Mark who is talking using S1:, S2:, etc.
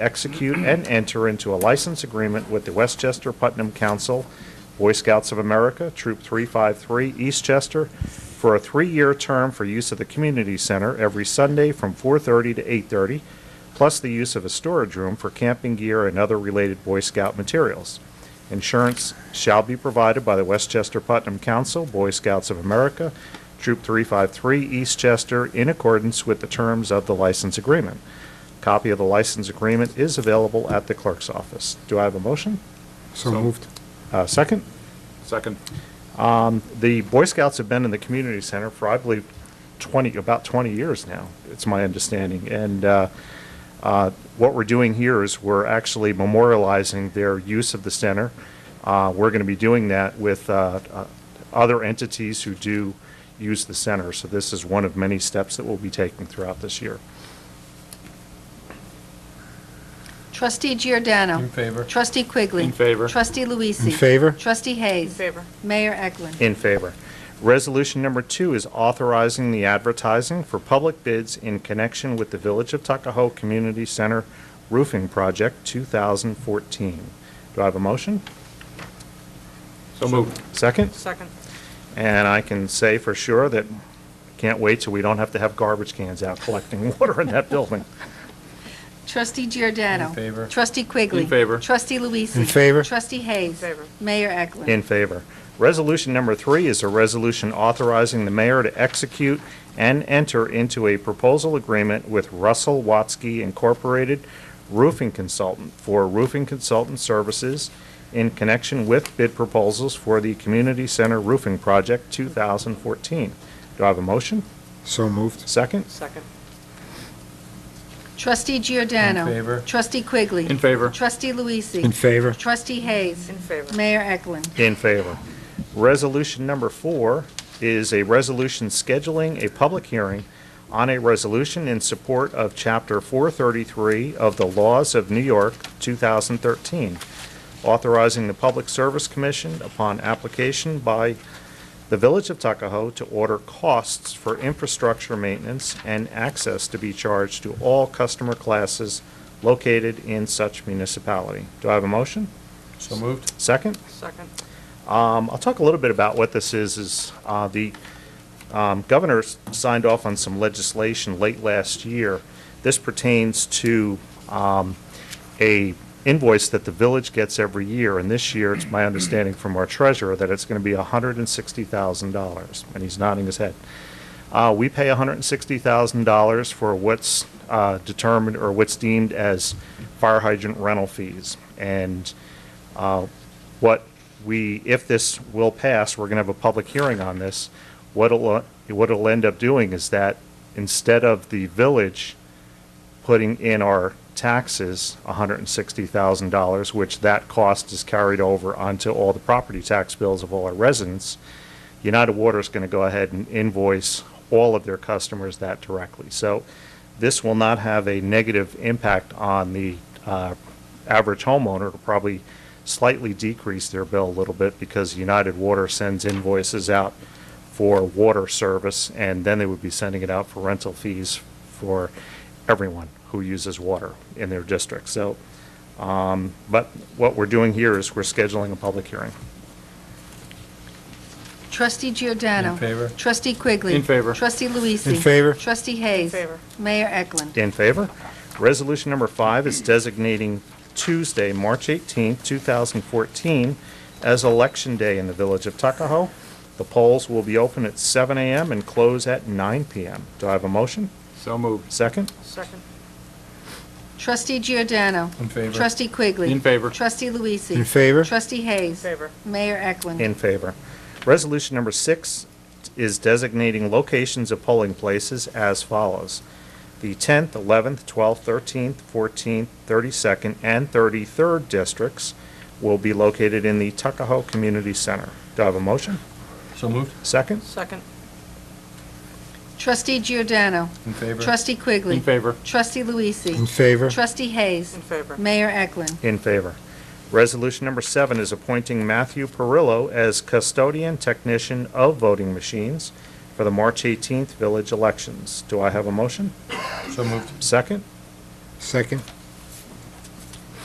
S1: execute and enter into a license agreement with the Westchester Putnam Council, Boy Scouts of America, Troop 353, Eastchester, for a three-year term for use of the community center every Sunday from 4:30 to 8:30, plus the use of a storage room for camping gear and other related Boy Scout materials. Insurance shall be provided by the Westchester Putnam Council, Boy Scouts of America, Troop 353, Eastchester, in accordance with the terms of the license agreement. Copy of the license agreement is available at the clerk's office. Do I have a motion?
S2: So moved.
S1: Uh, Second?
S3: Second.
S1: The Boy Scouts have been in the community center for, I believe, 20, about 20 years now, it's my understanding. And uh, uh, what we're doing here is we're actually memorializing their use of the center. Uh, We're going to be doing that with uh, uh, other entities who do use the center. So this is one of many steps that we'll be taking throughout this year.
S4: Trustee Giordano.
S5: In favor.
S4: Trustee Quigley.
S3: In favor.
S4: Trustee Luisi.
S2: In favor.
S4: Trustee Hayes.
S6: In favor.
S4: Mayor Eklund.
S1: In favor. Resolution number two is authorizing the advertising for public bids in connection with the Village of Tuckahoe Community Center Roofing Project 2014. Do I have a motion?
S3: So moved.
S1: Second?
S6: Second.
S1: And I can say for sure that, can't wait till we don't have to have garbage cans out collecting water in that building.
S4: Trustee Giordano.
S5: In favor.
S4: Trustee Quigley.
S3: In favor.
S4: Trustee Luisi.
S2: In favor.
S4: Trustee Hayes.
S6: In favor.
S4: Mayor Eklund.
S1: In favor. Resolution number three is a resolution authorizing the mayor to execute and enter into a proposal agreement with Russell Watsky Incorporated Roofing Consultant for roofing consultant services in connection with bid proposals for the Community Center Roofing Project 2014. Do I have a motion?
S2: So moved.
S1: Second?
S6: Second.
S4: Trustee Giordano.
S5: In favor.
S4: Trustee Quigley.
S3: In favor.
S4: Trustee Luisi.
S2: In favor.
S4: Trustee Hayes.
S6: In favor.
S4: Mayor Eklund.
S1: In favor. Resolution number four is a resolution scheduling a public hearing on a resolution in support of Chapter 433 of the Laws of New York, 2013, authorizing the Public Service Commission upon application by the Village of Tuckahoe to order costs for infrastructure maintenance and access to be charged to all customer classes located in such municipality. Do I have a motion?
S5: So moved.
S1: Second?
S6: Second.
S1: Um, I'll talk a little bit about what this is, is uh, the um, governor s- signed off on some legislation late last year. This pertains to um, a invoice that the village gets every year, and this year, it's my understanding from our treasurer that it's going to be $160,000, and he's nodding his head. Uh, We pay $160,000 for what's uh, determined, or what's deemed as fire hydrant rental fees. And uh, what we, if this will pass, we're going to have a public hearing on this. What it'll, what it'll end up doing is that instead of the village putting in our taxes $160,000, which that cost is carried over onto all the property tax bills of all our residents, United Water is going to go ahead and invoice all of their customers that directly. So this will not have a negative impact on the uh, average homeowner. It'll probably slightly decrease their bill a little bit because United Water sends invoices out for water service, and then they would be sending it out for rental fees for everyone who uses water in their district. So, um, but what we're doing here is we're scheduling a public hearing.
S4: Trustee Giordano.
S5: In favor.
S4: Trustee Quigley.
S3: In favor.
S4: Trustee
S2: In
S4: Luisi.
S2: favor.
S4: Trustee Hayes.
S6: In favor.
S4: Mayor Eklund.
S1: In favor. Resolution number five is designating Tuesday, March 18, 2014, as Election Day in the Village of Tuckahoe. The polls will be open at 7 a.m. and close at 9 p.m. Do I have a motion?
S3: So moved.
S1: Second?
S6: Second.
S4: Trustee Giordano.
S5: In favor.
S4: Trustee Quigley.
S3: In favor.
S4: Trustee Luisi.
S2: In favor.
S4: Trustee
S6: In
S4: Hayes.
S6: favor.
S4: Mayor Eklund.
S1: In favor. Resolution number six is designating locations of polling places as follows. The 10th, 11th, 12th, 13th, 14th, 32nd, and 33rd districts will be located in the Tuckahoe Community Center. Do I have a motion?
S5: So moved.
S1: Second?
S6: Second.
S4: Trustee Giordano.
S5: In favor.
S4: Trustee Quigley.
S3: In favor.
S4: Trustee Luisi.
S2: In favor.
S4: Trustee Hayes.
S6: In favor.
S4: Mayor Eklund.
S1: In favor. Resolution number seven is appointing Matthew Perillo as custodian technician of voting machines for the March 18th village elections. Do I have a motion?
S5: So moved.
S1: Second?
S2: Second.